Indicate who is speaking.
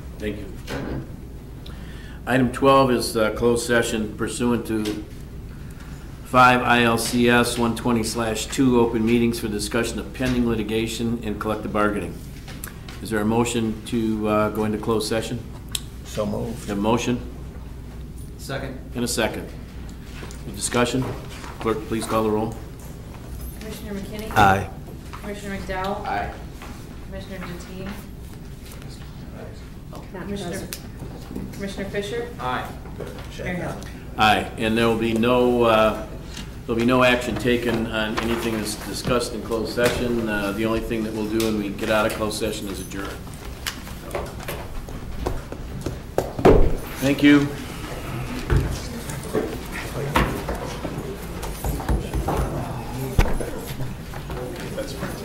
Speaker 1: Thank you. Item 12 is uh, closed session pursuant to 5 ILCS 120/2, open meetings for discussion of pending litigation and collective bargaining. Is there a motion to uh, go into closed session?
Speaker 2: So moved.
Speaker 1: A motion
Speaker 3: Second.
Speaker 1: and a second. Any Discussion? Clerk, please call the roll.
Speaker 4: Commissioner McKinney?
Speaker 1: Uh,
Speaker 2: Aye.
Speaker 4: Commissioner McDowell? Aye. Commissioner Deteen?
Speaker 5: Not
Speaker 4: Commissioner,
Speaker 5: present.
Speaker 4: Commissioner Fisher?
Speaker 3: Aye.
Speaker 4: Mayor Hill?
Speaker 1: Aye, and there will be no, uh, there'll be no action taken on anything that's discussed in closed session. Uh, The only thing that we'll do when we get out of closed session is adjourn. Thank you.